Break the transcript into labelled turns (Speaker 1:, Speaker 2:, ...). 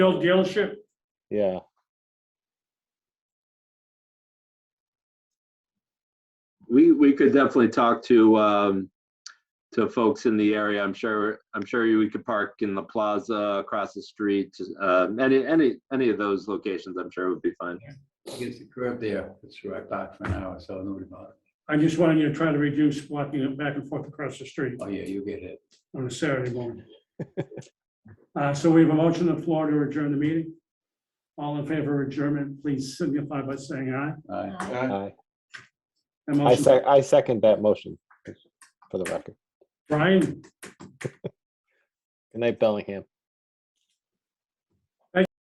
Speaker 1: Bill dealership,
Speaker 2: Yeah,
Speaker 3: We, we could definitely talk to, um, to folks in the area. I'm sure, I'm sure you- we could park in the plaza, across the street, uh, any, any, any of those locations, I'm sure would be fine.
Speaker 4: Against the curb there, it's right back for an hour, so nobody bothered.
Speaker 1: I just wanted you to try to reduce walking it back and forth across the street
Speaker 4: Oh, yeah, you get it.
Speaker 1: on a Saturday morning. Uh, so we have a motion on the floor to adjourn the meeting. All in favor of adjournment, please signify by saying aye.
Speaker 4: All right.
Speaker 2: I,
Speaker 1: That
Speaker 2: I
Speaker 1: motion-
Speaker 2: sec- I second that motion for the record.
Speaker 1: Brian,
Speaker 2: Good night, Bellingham.